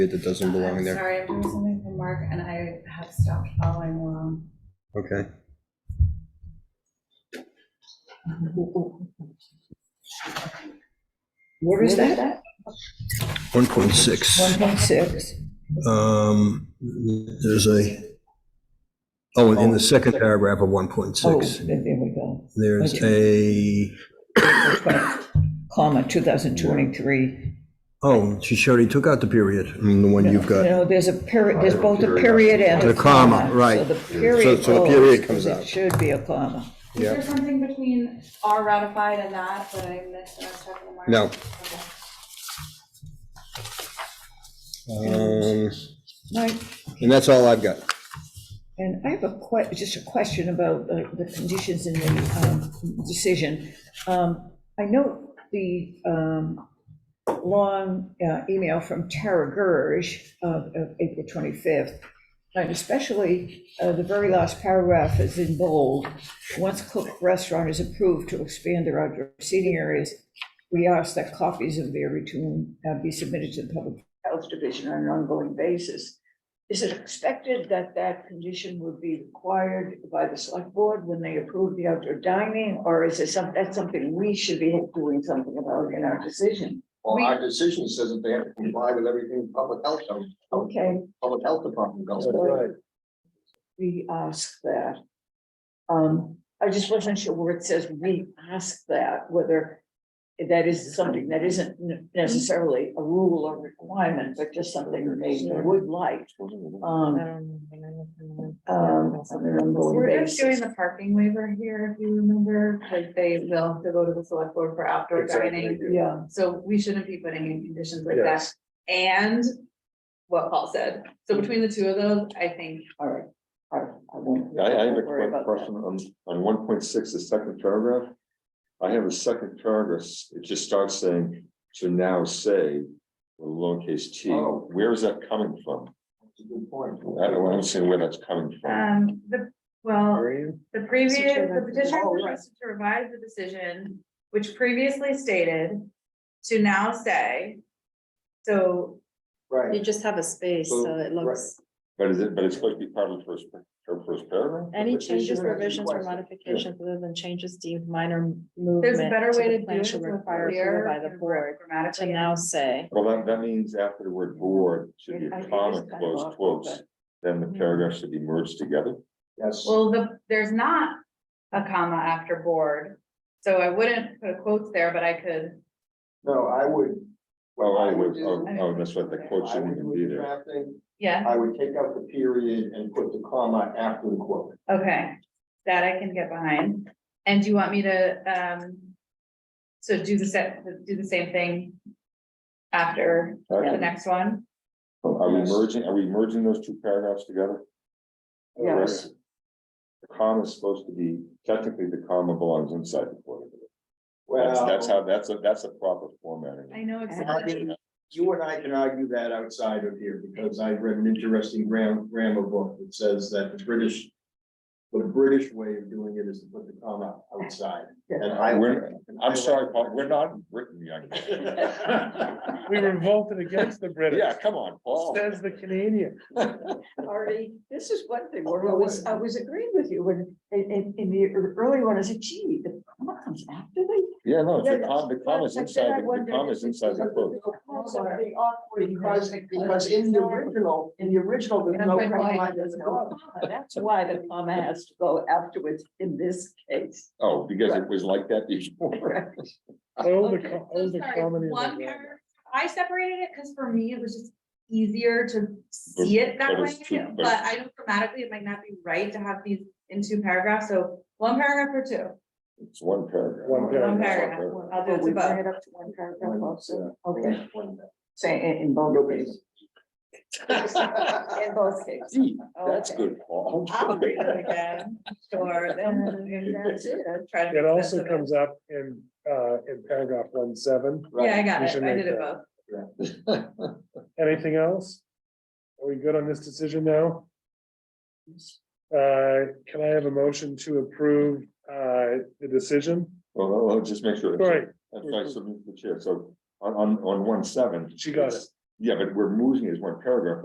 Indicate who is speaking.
Speaker 1: that doesn't belong
Speaker 2: I'm
Speaker 1: there.
Speaker 2: Sorry, I'm doing something for Mark and I have stopped following along.
Speaker 1: Okay.
Speaker 3: What is that?
Speaker 4: 1.6,
Speaker 3: 1.6.
Speaker 4: um, there's a, oh, in the second paragraph of
Speaker 3: Oh,
Speaker 4: 1.6,
Speaker 3: there there we go.
Speaker 4: there's a,
Speaker 3: Comma, 2023.
Speaker 4: oh, she showed he took out the period, I mean, the one you've
Speaker 3: You
Speaker 4: got.
Speaker 3: know, there's a period, there's both a period and a
Speaker 4: The comma,
Speaker 3: comma.
Speaker 4: right.
Speaker 3: So the period
Speaker 1: so the
Speaker 3: goes,
Speaker 1: period comes
Speaker 3: because
Speaker 1: out.
Speaker 3: It should be a comma.
Speaker 2: Is there something between are ratified and that that I missed when I was talking to Mark?
Speaker 1: No.
Speaker 2: Okay.
Speaker 1: Um,
Speaker 3: Mike,
Speaker 1: And that's all I've got.
Speaker 3: and I have a que, just a question about the, the conditions in the um, decision. Um, I know the um, long uh, email from Tara Gersh of of April 25th, and especially uh, the very last paragraph is in bold. Once Cook Restaurant is approved to expand their outdoor seating areas, we ask that copies of their return uh, be submitted to the Public Health Division on an ongoing basis.
Speaker 5: Is it expected that that condition would be required by the select board when they approve the outdoor dining? Or is it some, that's something we should be doing something about in our decision?
Speaker 6: Well, our decision says that they have to comply with everything public health,
Speaker 5: Okay,
Speaker 6: public health department goes.
Speaker 5: That's right. we ask that. Um, I just wasn't sure where it says we ask that, whether that is something that isn't necessarily a rule or requirement, but just something they would like. Um, um, on an ongoing
Speaker 2: We're just doing
Speaker 5: basis.
Speaker 2: the parking waiver here, if you remember, like they will have to go to the select board for outdoor dining.
Speaker 5: Yeah.
Speaker 2: So we shouldn't be putting in conditions like that.
Speaker 6: Yes.
Speaker 2: And what Paul said. So between the two of those, I think
Speaker 5: All right, all right, I won't.
Speaker 6: I, I have a
Speaker 5: don't worry
Speaker 6: quick
Speaker 5: about that.
Speaker 6: question on, on one point six, the second paragraph. I have a second paragraph, it just starts saying, to now say, with lowercase t, where is that coming from? That's a good point. I don't understand where that's coming from.
Speaker 7: Uh,
Speaker 2: Um, the, well, the previous,
Speaker 5: Petition
Speaker 2: the
Speaker 5: of-
Speaker 2: petitioner
Speaker 5: oh, right.
Speaker 2: requested to revise the decision, which previously stated to now say. So,
Speaker 7: You just have a space,
Speaker 6: So,
Speaker 7: so it
Speaker 6: right.
Speaker 7: looks,
Speaker 6: But is it, but it's supposed to be part of the first, her first paragraph?
Speaker 7: any changes,
Speaker 6: Petitioner
Speaker 7: revisions, or
Speaker 6: requested.
Speaker 7: modifications other than changes deemed minor movement.
Speaker 2: there's a better
Speaker 7: to
Speaker 2: way
Speaker 7: the
Speaker 2: to do
Speaker 7: plan
Speaker 2: it.
Speaker 7: shall
Speaker 2: so it's
Speaker 7: require approval
Speaker 2: clear
Speaker 7: By the
Speaker 2: and
Speaker 7: board to
Speaker 2: Grammatically.
Speaker 7: now say.
Speaker 6: Well, that, that means after the word board should be
Speaker 5: I
Speaker 6: a
Speaker 5: think
Speaker 6: comma,
Speaker 5: it's kind of
Speaker 6: close
Speaker 5: awkward,
Speaker 6: quotes, then
Speaker 7: Hmm.
Speaker 6: the paragraphs should be merged together. Yes.
Speaker 2: Well, the, there's not a comma after board, so I wouldn't put a quotes there, but I could.
Speaker 8: No, I would.
Speaker 6: Oh,
Speaker 8: I
Speaker 6: I would,
Speaker 8: do-
Speaker 6: oh, oh, that's right, the quote
Speaker 8: I
Speaker 6: shouldn't
Speaker 8: would
Speaker 6: even
Speaker 8: do
Speaker 6: be there.
Speaker 8: with drafting,
Speaker 2: Yeah.
Speaker 8: I would take out the period and put the comma after the quote.
Speaker 2: Okay, that I can get behind. And do you want me to, um, so do the set, do the same thing after the
Speaker 6: Okay.
Speaker 2: next one?
Speaker 6: Are we
Speaker 8: Yes.
Speaker 6: merging, are we merging those two paragraphs together?
Speaker 5: Yes.
Speaker 6: Correct. The comma is supposed to be, technically, the comma belongs inside the quote. That's, that's
Speaker 8: Well,
Speaker 6: how, that's a, that's a proper formatting.
Speaker 2: I know
Speaker 8: I
Speaker 2: exactly.
Speaker 8: mean, You and I can argue that outside of here, because I read an interesting gram, grammar book that says that the British, the British way of doing it is to put the comma outside. And I.
Speaker 6: We're-
Speaker 8: and I
Speaker 6: I'm
Speaker 8: like-
Speaker 6: sorry, Paul, we're not in Britain, young. man.
Speaker 9: We revolted against the
Speaker 6: Yeah,
Speaker 9: British,
Speaker 6: come on, Paul.
Speaker 9: says the Canadian.
Speaker 5: Artie, this is one thing
Speaker 8: Oh,
Speaker 5: where I was, I was agreeing with you when, in, in, in the earlier one, I said, gee, the comma comes after the.
Speaker 6: Yeah, no,
Speaker 5: Yeah,
Speaker 6: Oh, the com, the comma's
Speaker 5: But then I
Speaker 6: inside, the
Speaker 5: wondered
Speaker 6: comma's
Speaker 5: if it's
Speaker 6: inside the quote.
Speaker 5: Something awkward.
Speaker 8: Because, because in the original,
Speaker 5: in the original,
Speaker 8: there's no comma, there's no-
Speaker 5: That's why the comma has to go afterwards in this case.
Speaker 6: Oh, because it was like that before.
Speaker 9: All the,
Speaker 2: Okay,
Speaker 9: co-
Speaker 2: so
Speaker 9: all the
Speaker 2: sorry,
Speaker 9: comedy. of
Speaker 2: one
Speaker 9: the world.
Speaker 2: paragraph. I separated it because for me, it was just easier to see it that
Speaker 6: But
Speaker 2: way,
Speaker 6: it's two- but-
Speaker 2: but I know grammatically, it might not be right to have these in two paragraphs, so one paragraph or two.
Speaker 6: It's one paragraph.
Speaker 9: One paragraph.
Speaker 2: One paragraph.
Speaker 8: Uh,
Speaker 2: I'll do it
Speaker 5: But we
Speaker 2: to both.
Speaker 5: bring it up to one paragraph also. Okay,
Speaker 8: One-
Speaker 5: say in, in both cases. In both cases.
Speaker 6: Gee, that's
Speaker 5: Okay.
Speaker 6: good, Paul.
Speaker 2: I'll read it again, sure, then.
Speaker 5: That's it.
Speaker 2: try to make
Speaker 9: It
Speaker 2: sense
Speaker 9: also
Speaker 2: of
Speaker 9: comes up in, uh, in paragraph one seven.
Speaker 2: Yeah, I got
Speaker 9: We
Speaker 2: it,
Speaker 9: should
Speaker 2: I
Speaker 9: make
Speaker 2: did it
Speaker 9: that.
Speaker 2: both.
Speaker 9: Anything else? Are we good on this decision now? Uh, can I have a motion to approve, uh, the decision?
Speaker 6: Well, I'll- I'll just make sure.
Speaker 9: Sorry,
Speaker 6: That's why I submitted to the chair, so on, on, on one seven.
Speaker 9: She got it.
Speaker 6: Yeah, but we're moving it as one paragraph,